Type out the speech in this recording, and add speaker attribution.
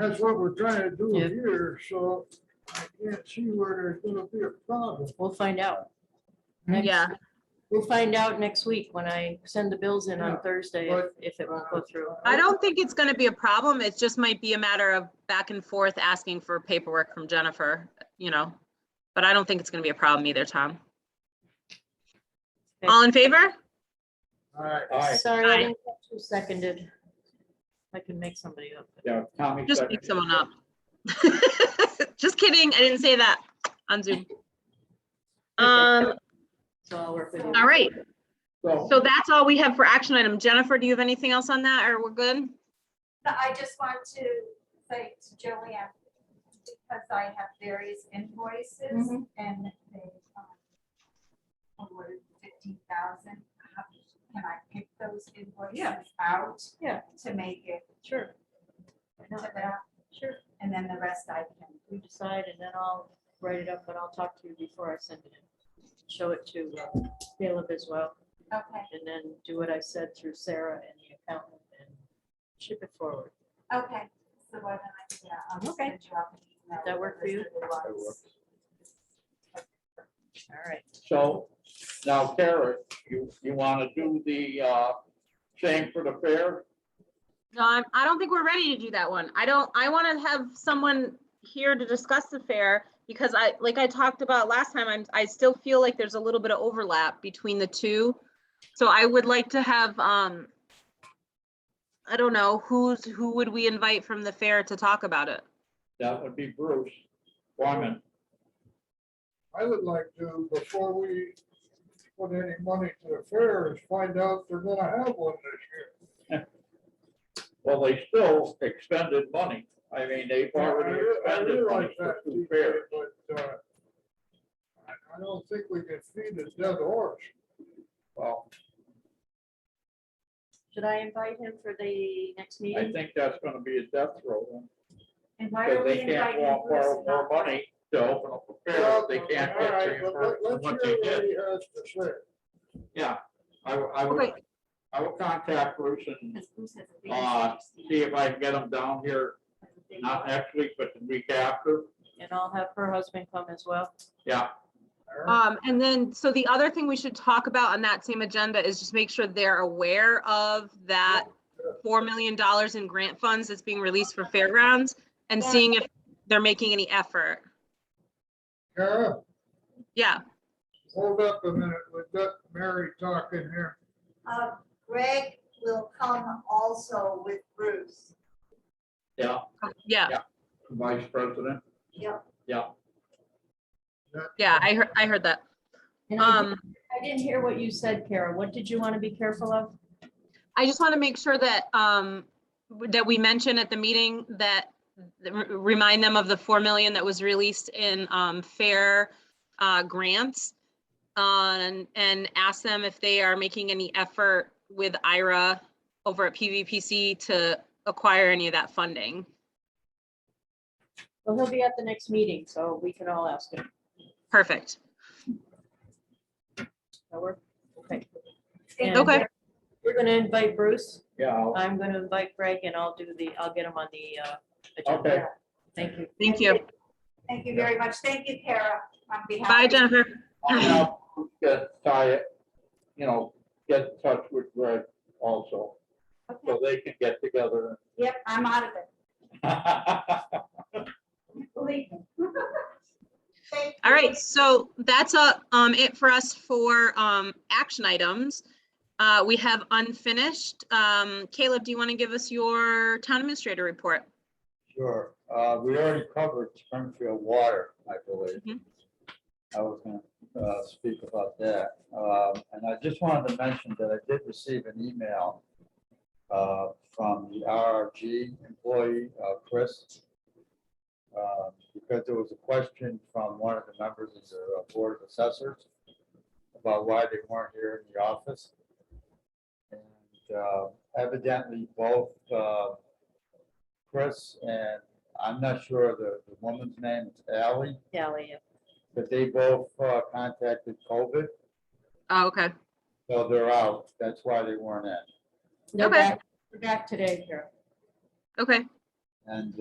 Speaker 1: That's what we're trying to do
Speaker 2: Yeah.
Speaker 1: here, so I can't see where there's gonna be a problem.
Speaker 2: We'll find out. Next-
Speaker 3: Yeah,
Speaker 2: We'll find out next week when I send the bills in on
Speaker 1: Yeah,
Speaker 2: Thursday, if
Speaker 1: but-
Speaker 2: if it won't go through.
Speaker 3: I don't think it's going to be a problem. It just might be a matter of back and forth asking for paperwork from Jennifer, you know. But I don't think it's going to be a problem either, Tom. All in favor?
Speaker 1: All right.
Speaker 4: Aye.
Speaker 2: Sorry, I
Speaker 3: Aye.
Speaker 2: didn't catch who seconded. I can make somebody up.
Speaker 4: Yeah, Tommy.
Speaker 3: Just
Speaker 4: second.
Speaker 3: pick someone up. Just kidding. I didn't say that on Zoom. Um,
Speaker 2: So I'll work with you.
Speaker 3: all right.
Speaker 4: So,
Speaker 3: So that's all we have for action item. Jennifer, do you have anything else on that or we're good?
Speaker 5: But I just want to say to Joanne, because I have various invoices
Speaker 2: Mhm.
Speaker 5: and they um, awarded fifteen thousand, can I pick those
Speaker 2: Yeah.
Speaker 5: invoices out?
Speaker 2: Yeah.
Speaker 5: To make it
Speaker 2: Sure. Why
Speaker 5: to
Speaker 2: not?
Speaker 5: that,
Speaker 2: Sure.
Speaker 5: and then the rest I can,
Speaker 2: We decide and then I'll write it up, but I'll talk to you before I send it in. Show it to uh, Caleb as well,
Speaker 5: okay,
Speaker 2: and then do what I said through Sarah and the accountant and ship it forward.
Speaker 5: okay. So why don't I, yeah, I'll just
Speaker 2: Okay.
Speaker 5: send you out an email.
Speaker 2: That work for you?
Speaker 5: with the list of the
Speaker 4: That
Speaker 5: ones.
Speaker 2: All right.
Speaker 4: so now Kara, you, you want to do the, uh, same for the fair?
Speaker 3: No, I'm, I don't think we're ready to do that one. I don't, I want to have someone here to discuss the fair because I, like I talked about last time, I'm, I still feel like there's a little bit of overlap between the two. So I would like to have, um, I don't know, who's, who would we invite from the fair to talk about it?
Speaker 4: That would be Bruce Wyman.
Speaker 1: I would like to, before we put any money to the fair, is find out if they're gonna have one this
Speaker 4: Well, they still expended money. I mean, they've
Speaker 1: year.
Speaker 4: already
Speaker 1: I- I
Speaker 4: expended
Speaker 1: realize
Speaker 4: money for
Speaker 1: that,
Speaker 4: two fairs.
Speaker 1: But uh, I I don't think we can feed a dead horse.
Speaker 4: Well,
Speaker 2: Should I invite him for the next
Speaker 4: I
Speaker 2: meeting?
Speaker 4: think that's going to be a death throw.
Speaker 5: And why are
Speaker 4: Because
Speaker 5: we
Speaker 4: they can't
Speaker 5: inviting
Speaker 4: walk,
Speaker 5: Bruce
Speaker 4: borrow
Speaker 5: and not
Speaker 4: more money to open up a fair. if They can't
Speaker 1: All
Speaker 4: get
Speaker 1: right, but let-
Speaker 4: reimbursed for
Speaker 1: let's
Speaker 4: what they
Speaker 1: hear what
Speaker 4: did.
Speaker 1: he has to say.
Speaker 4: Yeah, I, will- I would,
Speaker 3: Okay.
Speaker 4: I will contact Bruce and
Speaker 5: Because Bruce has a big
Speaker 4: Uh,
Speaker 5: stand.
Speaker 4: see if I can get them down here, not next week, but the week after.
Speaker 2: And I'll have her husband come as well.
Speaker 4: Yeah,
Speaker 1: All right.
Speaker 3: Um, and then, so the other thing we should talk about on that same agenda is just make sure they're aware of that $4 million in grant funds that's being released for fairgrounds and
Speaker 2: Yeah.
Speaker 3: seeing if they're making any effort.
Speaker 1: Kara,
Speaker 3: Yeah,
Speaker 1: hold up a minute. We've got Mary talking here.
Speaker 5: Uh, Greg will come also with Bruce.
Speaker 4: yeah,
Speaker 3: yeah,
Speaker 4: vice president,
Speaker 5: Yep,
Speaker 4: yeah.
Speaker 3: yeah, I heard, I heard that.
Speaker 2: And I
Speaker 3: Um,
Speaker 2: I didn't hear what you said, Kara. What did you want to be careful of?
Speaker 3: I just want to make sure that, um, that we mention at the meeting that, that re- remind them of the 4 million that was released in, um, fair, uh, grants. uh, And, and ask them if they are making any effort with IRA over at PVPC to acquire any of that funding.
Speaker 2: Well, he'll be at the next meeting, so we can all ask him.
Speaker 3: Perfect.
Speaker 2: That work? Okay.
Speaker 5: Thank
Speaker 2: And
Speaker 3: Okay.
Speaker 2: we're- We're gonna invite Bruce.
Speaker 4: Yeah, I'll-
Speaker 2: I'm gonna invite Greg and I'll do the, I'll get him on the uh,
Speaker 4: okay,
Speaker 2: agenda. Thank you.
Speaker 3: Thank you.
Speaker 5: Thank you very much. Thank you, Tara, on behalf.
Speaker 3: Bye,
Speaker 5: of-
Speaker 3: Jennifer.
Speaker 4: I'll now get, tie it, you know, get in touch with Greg also,
Speaker 5: Okay.
Speaker 4: so they can get together.
Speaker 5: Yep, I'm out of it. Believe me. Thank
Speaker 3: All
Speaker 5: you.
Speaker 3: right, so that's uh, um, it for us for um, action items. Uh, We have unfinished. Um, Caleb, do you want to give us your town administrator report?
Speaker 6: Sure, uh, we already covered Springfield Water, I believe.
Speaker 3: Mhm.
Speaker 6: I was gonna, uh, speak about that, um, and I just wanted to mention that I did receive an email. Uh, from the RRG employee, uh, Chris. Uh, because there was a question from one of the members of the uh, Board of Assessors. About why they weren't here in the office. And, uh, evidently both, uh, Chris and I'm not sure the, the woman's name, it's Ally,
Speaker 2: Sally, yeah.
Speaker 6: but they both uh, contacted COVID,
Speaker 3: Oh, okay.
Speaker 6: so they're out. That's why they weren't in.
Speaker 2: They're
Speaker 3: Okay.
Speaker 2: back- They're back today, Kara.
Speaker 3: Okay.
Speaker 6: And